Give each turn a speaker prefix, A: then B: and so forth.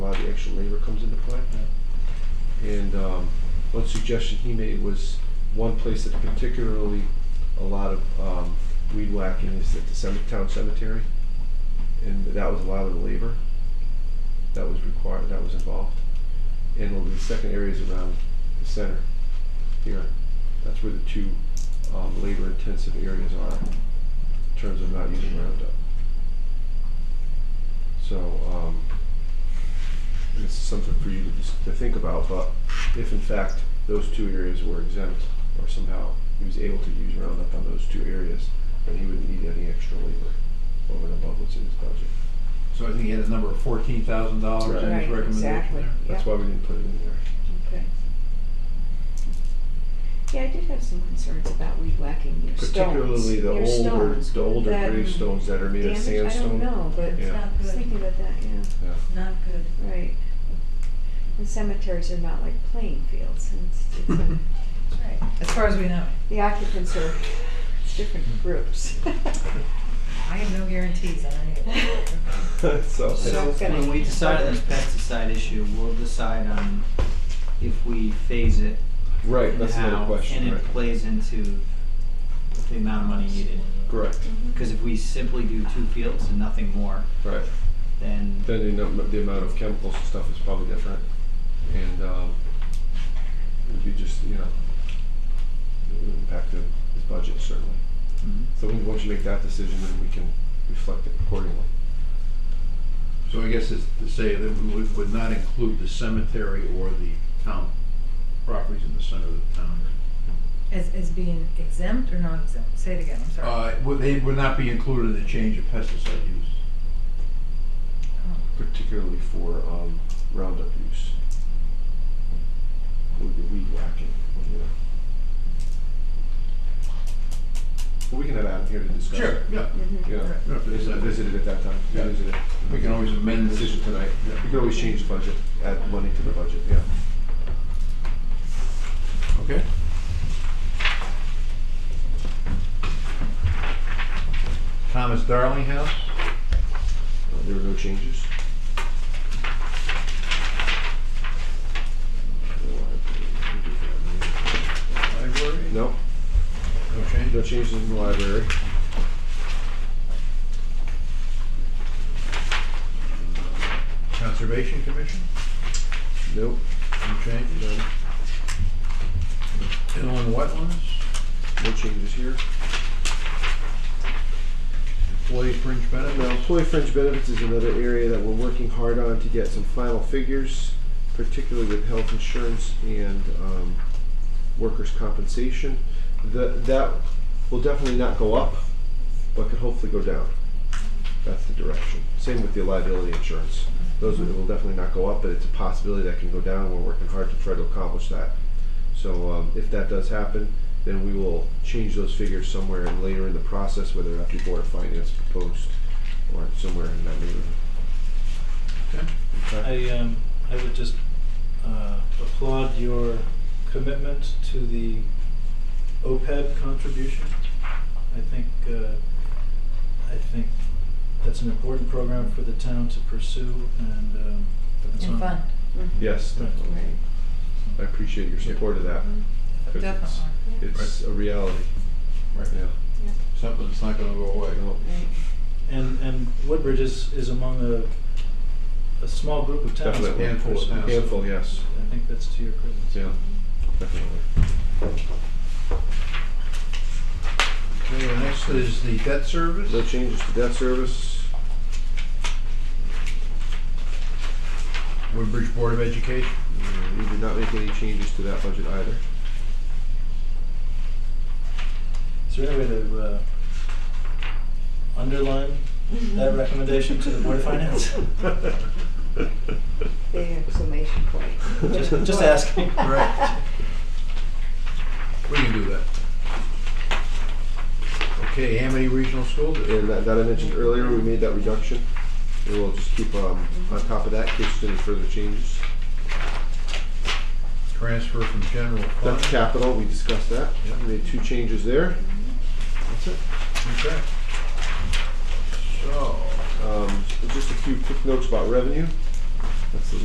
A: uh, the actual neighbor comes into play. And um, one suggestion he made was one place that particularly a lot of um, weed whacking is at the cemetery, town cemetery, and that was a lot of the labor that was required, that was involved. And one of the second areas around the center here, that's where the two um, labor-intensive areas are in terms of not using Roundup. So, um, this is something for you to just, to think about, but if in fact those two areas were exempt or somehow he was able to use Roundup on those two areas, then he wouldn't need any extra labor over and above what's in his budget.
B: So I think he had a number of fourteen thousand dollars in
A: Right,
B: his recommendation
C: exactly.
B: there.
A: That's why we didn't put it in there.
C: Okay. Yeah, I did have some concerns about weed whacking your stones.
A: Particularly the
C: Your
A: older,
C: stones,
A: the older
C: that
A: gravestones that are made of
C: damage-
A: sandstone.
C: I don't know, but
A: Yeah.
D: It's not
C: I was
D: good,
C: thinking about that, yeah,
A: Yeah.
D: not good.
C: right. And cemeteries are not like playing fields, and it's, it's a,
D: That's right. As far as we know.
C: the occupants are it's different groups.
D: I have no guarantees on any of that.
A: So,
C: So
E: So
C: it's gonna-
E: when we decide on this pesticide issue, we'll decide on if we phase it
A: right,
E: and
A: that's another
E: how,
A: question,
E: and it
A: right.
E: plays into the amount of money needed.
A: Correct,
E: Because if we simply do two fields and nothing more,
A: right.
E: then
A: Then the, num- the amount of chemicals and stuff is probably different. And um, it'd be just, you know, it would impact the, his budget certainly.
E: Mhm.
A: So when- once you make that decision, then we can reflect it accordingly.
B: So I guess it's to say that we would, would not include the cemetery or the town properties in the center of the town.
D: As, as being exempt or non-exempt? Say it again, I'm sorry.
B: Uh, would, they would not be included in the change of pesticide use.
A: particularly for um, Roundup use. Weed, weed whacking, you know. But we can have Adam here to discuss. it.
B: Yeah.
C: Mhm.
A: Yeah.
B: Yeah, if there's
A: Visit,
B: a-
A: visit it at that time.
B: Yeah.
A: Visit it.
B: We can always amend the
A: Decision
B: decision.
A: tonight.
B: Yeah.
A: We can always change the budget, add money to the budget, yeah.
B: Okay. Thomas Darling House?
A: Uh, There were no changes.
B: Library?
A: No,
B: No change?
A: no changes in the library.
B: Conservation Commission?
A: Nope,
B: No changes?
A: none.
B: Inland Wetlands?
A: No changes here.
B: Employee fringe
A: Now,
B: benefits?
A: employee fringe benefits is another area that we're working hard on to get some final figures, particularly with health insurance and um, workers' compensation. That that will definitely not go up, but could hopefully go down. That's the direction. Same with the liability insurance. Those will- it will definitely not go up, but it's a possibility that can go down. We're working hard to try to accomplish that. So um, if that does happen, then we will change those figures somewhere and later in the process, whether that be board of finance proposed or somewhere in that neighborhood.
B: Okay.
A: Okay.
F: I, um, I would just uh, applaud your commitment to the OPEB contribution. I think, uh, I think that's an important program for the town to pursue and, um, and so
D: And
F: on.
D: fund,
C: Mhm.
A: Yes, definitely.
C: Right.
A: I appreciate your support of that.
C: Mhm.
A: Because
D: definitely.
A: it's- It's a reality.
B: Right.
A: Yeah.
C: Yep.
B: Something that's not gonna go away.
A: No.
C: Right.
F: And, and Woodbridge is, is among a, a small group of towns.
A: Definitely.
B: Handful of
F: So
B: towns.
A: Handful, yes.
F: I think that's to your credit.
A: Yeah, definitely.
B: Okay, and next is the debt service.
A: No changes to debt service.
B: Woodbridge Board of Education.
A: Uh, We did not make any changes to that budget either.
F: Is there any way to uh, underline that recommendation to the Board of Finance?
C: The exclamation point.
F: Just, just asking.
B: Right. We can do that. Okay, Amity Regional School District.
A: And that, that I mentioned earlier, we made that reduction. And we'll just keep, um, on top of that, in case there's any further changes.
B: Transfer from general fund.
A: That's capital, we discussed that.
B: Yeah.
A: We made two changes there. That's it.
B: Okay. So.
A: Um, just a few quick notes about revenue. That's the